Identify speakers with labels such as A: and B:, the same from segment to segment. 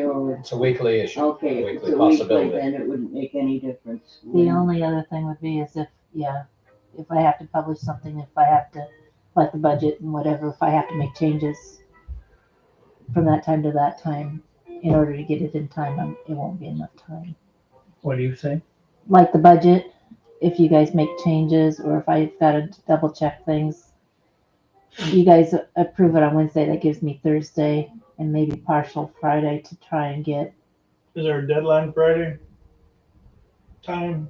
A: It's a weekly issue.
B: Okay, if it's
A: Weekly
B: a weekly,
A: possibility.
B: then it wouldn't make any difference.
C: The only other thing would be is if, yeah, if I have to publish something, if I have to, like the budget and whatever, if I have to make changes from that time to that time in order to get it in time, um, it won't be enough time.
D: What do you think?
C: Like the budget, if you guys make changes or if I've got to double check things, you guys approve it on Wednesday, that gives me Thursday and maybe partial Friday to try and get,
E: Is there a deadline Friday? Time?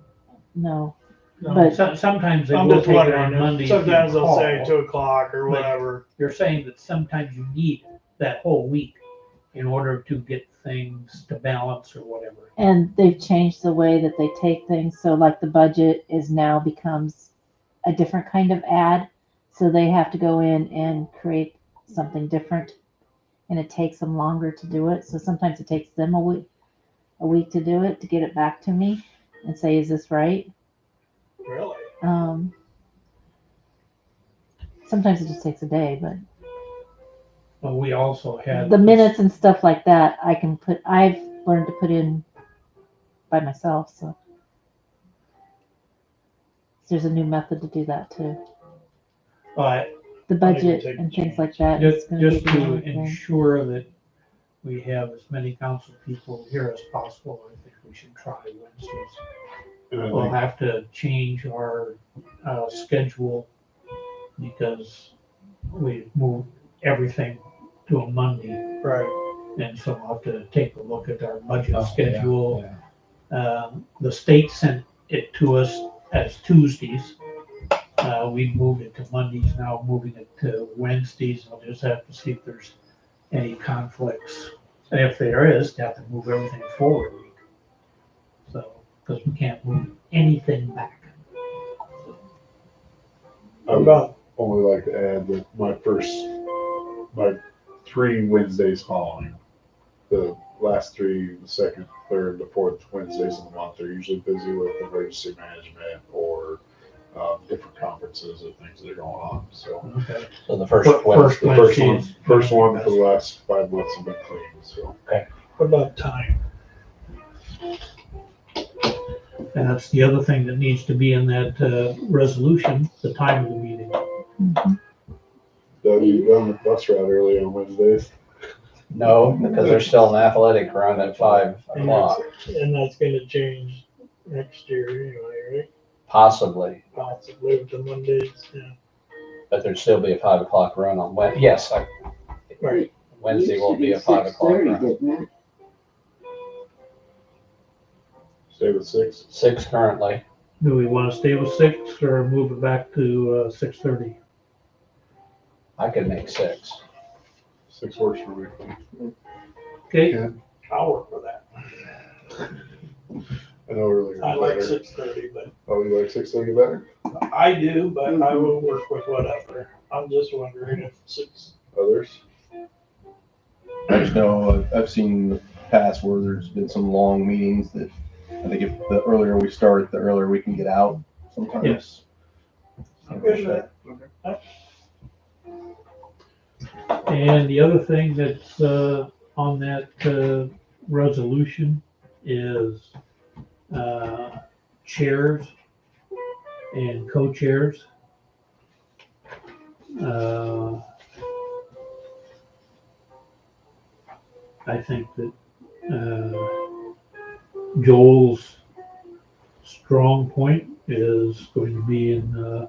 C: no,
E: No.
C: But-
D: Some- Sometimes they
E: I'm
D: will
E: just
D: take it on
E: wondering,
D: Monday. if
E: if
D: you
E: sometimes they'll say
D: call.
E: two o'clock or
D: But-
E: whatever.
D: You're saying that sometimes you need that whole week in order to get things to balance or whatever.
C: And they've changed the way that they take things. So like the budget is now becomes a different kind of ad. So they have to go in and create something different. And it takes them longer to do it. So sometimes it takes them a week a week to do it to get it back to me and say, is this right?
E: Really?
C: Um, sometimes it just takes a day, but
D: But we also had.
C: the minutes and stuff like that I can put I've learned to put in by myself so there's a new method to do that too
D: But
C: the
E: can
C: budget
E: take
C: and
E: the
C: things like that is
D: just,
C: gonna
D: just
C: be the
D: to
C: only thing.
D: ensure that we have as many council people here as possible, I think we should try Wednesdays. We'll have to change our uh, schedule because we moved everything to a Monday.
E: Right.
D: And so we'll have to take a look at our budget
A: Oh, yeah,
D: schedule.
A: yeah.
D: Um, The state sent it to us as Tuesdays. Uh, We moved it to Mondays, now moving it to Wednesdays. We'll just have to see if there's any conflicts. And if there is, they have to move everything forward a week. So, because we can't move anything back.
F: I
E: What
F: would
E: about,
F: only like to add that my first, my three Wednesdays following, the last three, the second, third, the fourth Wednesdays of the month are usually busy with emergency management or um, different conferences or things that are going on. So
D: Okay.
A: So the first
D: But
A: Wednesday.
F: the first one,
D: Wednesdays.
F: first one for the last five months have been clean. So
E: what about time?
D: And that's the other thing that needs to be in that uh, resolution, the time of the meeting.
C: Mhm.
F: Doug, you done the bus route early on Wednesdays.
A: No, because there's still an athletic run at five o'clock,
E: And that's gonna change next year anyway, right?
A: possibly,
E: Possibly with the Mondays, yeah.
A: but there'd still be a five o'clock run on Wed, yes, I-
E: Right.
A: Wednesday will be a five o'clock run.
B: Didn't it?
F: Stay with six.
A: Six currently.
D: Do we want to stay with six or move it back to uh, six thirty?
A: I could make six.
F: Six works for me.
D: Okay,
E: I'll work for that.
F: I know earlier.
E: I like
F: better.
E: six thirty, but
F: Oh, you like six thirty better?
E: I do, but I will work with whatever. I'm just wondering if six,
F: Others?
G: There's no, I've seen in the past where there's been some long meetings that I think if the earlier we start, the earlier we can get out sometimes.
D: Yes.
E: I'm good with that.
D: and the other thing that's uh, on that uh, resolution is uh, chairs and co-chairs. Uh, I think that uh, Joel's strong point is going to be in uh,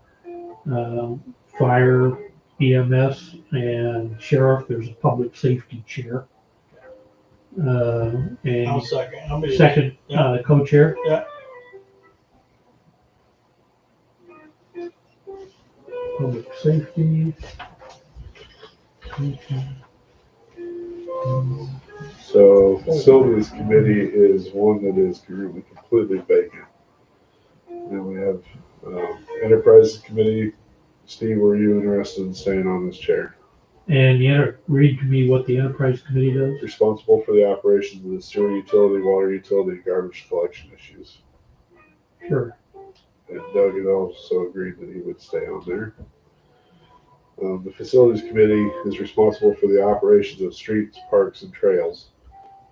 D: um, fire EMS and sheriff, there's a public safety chair. Uh,
E: I'll
D: and
E: second. I'll be
D: second, uh, co-chair.
E: Yeah.
D: Public safety. Okay.
F: So facilities committee is one that is currently completely vacant. And we have um, enterprise committee. Steve, were you interested in staying on this chair?
D: And you enter, read to me what the enterprise committee does.
F: Responsible for the operations of the sewer utility, water utility, and garbage collection issues.
D: Sure.
F: And Doug had also agreed that he would stay on there. Um, the facilities committee is responsible for the operations of streets, parks, and trails.